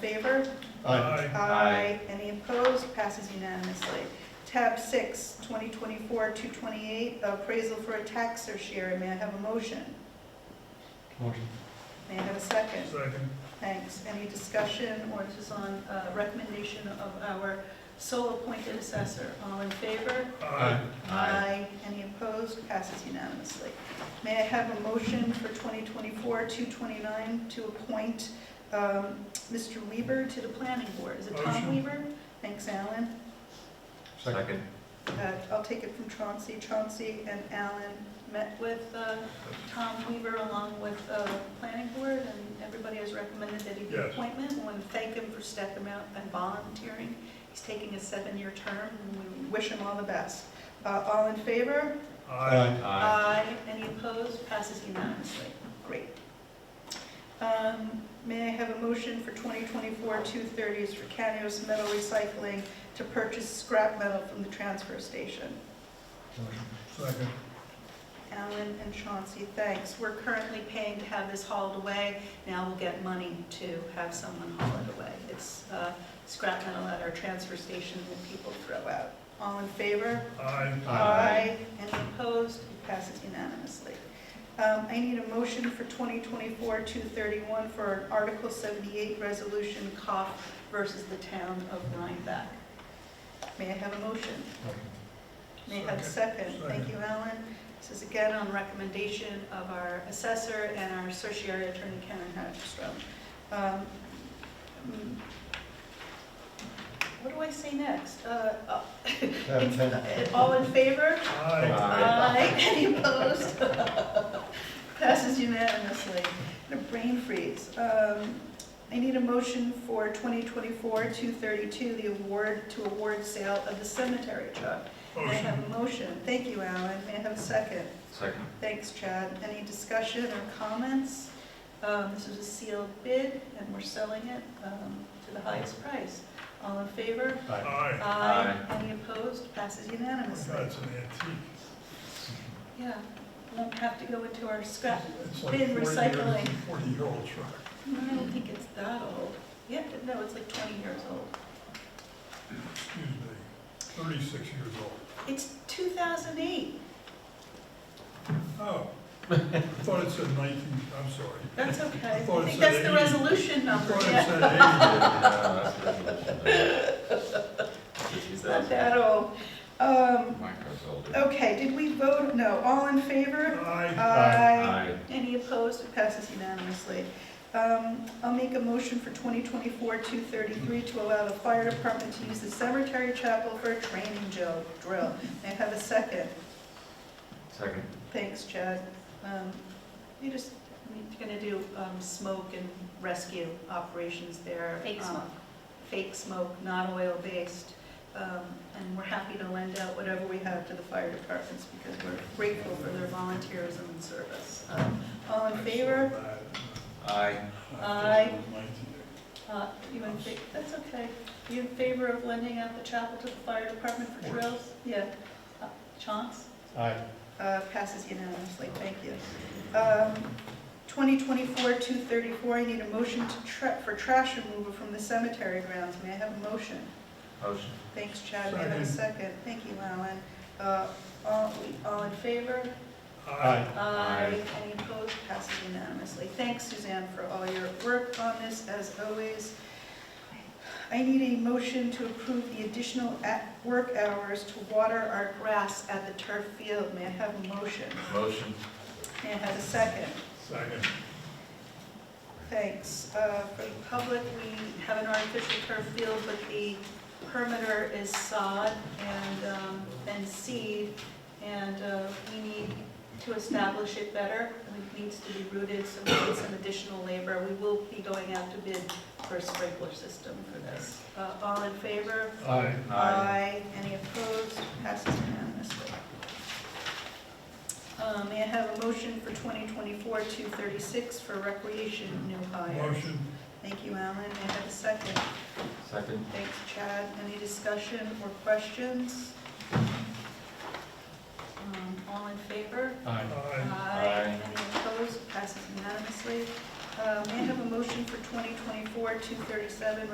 favor? Aye. Aye. Any opposed? Passes unanimously. Tab six, 2024-228, appraisal for a tax or share. May I have a motion? Motion. May I have a second? Second. Thanks. Any discussion, or this is on uh, recommendation of our sole appointed assessor. All in favor? Aye. Aye. Any opposed? Passes unanimously. May I have a motion for 2024-229 to appoint um, Mr. Weaver to the planning board? Is it Tom Motion. Weaver? Thanks, Alan. Second. Uh, I'll take it from Chauncey. Chauncey and Alan met with uh, Tom Weaver along with uh, planning board, and everybody has recommended that he be Yes. appointment. I want to thank him for stepping out and volunteering. He's taking a seven-year term, and we wish him all the best. Uh, All in favor? Aye. Aye. Any opposed? Passes unanimously. Great. Um, May I have a motion for 2024-230s for Canos Metal Recycling to purchase scrap metal from the transfer station? Motion. Second. Alan and Chauncey, thanks. We're currently paying to have this hauled away. Now we'll get money to have someone haul it away. It's uh, scrap metal at our transfer station that people throw out. All in favor? Aye. Aye. Any opposed? It passes unanimously. Um, I need a motion for 2024-231 for an Article 78 resolution, Cough versus the Town of Rhinebeck. May I have a motion? Motion. May I have a second? Thank you, Alan. This is again on recommendation of our assessor and our certiorari attorney, Karen Hagstrom. Um, mm, What do I say next? Uh, oh, Tab ten. All in favor? Aye. Aye. Any opposed? Passes unanimously. And a brain freeze. Um, I need a motion for 2024-232, the award, to award sale of the cemetery truck. May I Motion. have a motion? Thank you, Alan. May I have a second? Second. Thanks, Chad. Any discussion or comments? Um, This is a sealed bid, and we're selling it um, to the highest price. All in favor? Aye. Aye. Any opposed? Passes unanimously. That's an antique. Yeah, we won't have to go into our scrap. It's like Bin 40 year- recycling. Forty-year-old truck. No, I don't think it's that old. Yeah, no, it's like 20 years old. Excuse me. Thirty-six years old. It's 2008. Oh. I thought it said nineteen, I'm sorry. That's okay. I I thought it think that's said the 80. resolution I number. thought it Yeah, said eighty. it's not that old. Um, Microsoft. Okay, did we vote? No. All in favor? Aye. Aye. Any opposed? It passes unanimously. Um, I'll make a motion for 2024-233 to allow the fire department to use the cemetery chapel for a training drill. drill. May I have a second? Second. Thanks, Chad. Um, You just, you're gonna do um, smoke and rescue operations there. Fake um, smoke. Fake smoke, not oil-based. Um, And we're happy to lend out whatever we have to the fire departments because we're grateful for their volunteerism and service. Um, All in favor? Aye. Aye. Nineteen. Uh, You in fa, that's okay. You in favor of lending out the chapel to the fire department for drills? Yeah. Uh, Chance? Aye. Uh, Passes unanimously, thank you. Um, 2024-234, I need a motion to tra, for trash removal from the cemetery grounds. May I have a motion? Motion. Thanks, Chad, may I have a Second. second? Thank you, Alan. Uh, All all in favor? Aye. Aye. Any opposed? Passes unanimously. Thanks, Suzanne, for all your work on this, as always. I need a motion to approve the additional at- work hours to water our grass at the turf field. May I have a motion? Motion. May I have a second? Second. Thanks. Uh, For the public, we have an artificial turf field, but the perimeter is sod and, um, and seed, and uh, we need to establish it better. It needs to be rooted, so we need some additional labor. We will be going out to bid for a sprinkler system for this. Uh, All in favor? Aye. Any opposed? Passes unanimously. Uh, May I have a motion for 2024-236 for recreation new hire? Motion. Thank you, Alan. May I have a second? Second. Thanks, Chad. Any discussion or questions? Um, All in favor? Aye. Aye. Any opposed? Passes unanimously. Um, Uh, May I have a motion for 2024-237,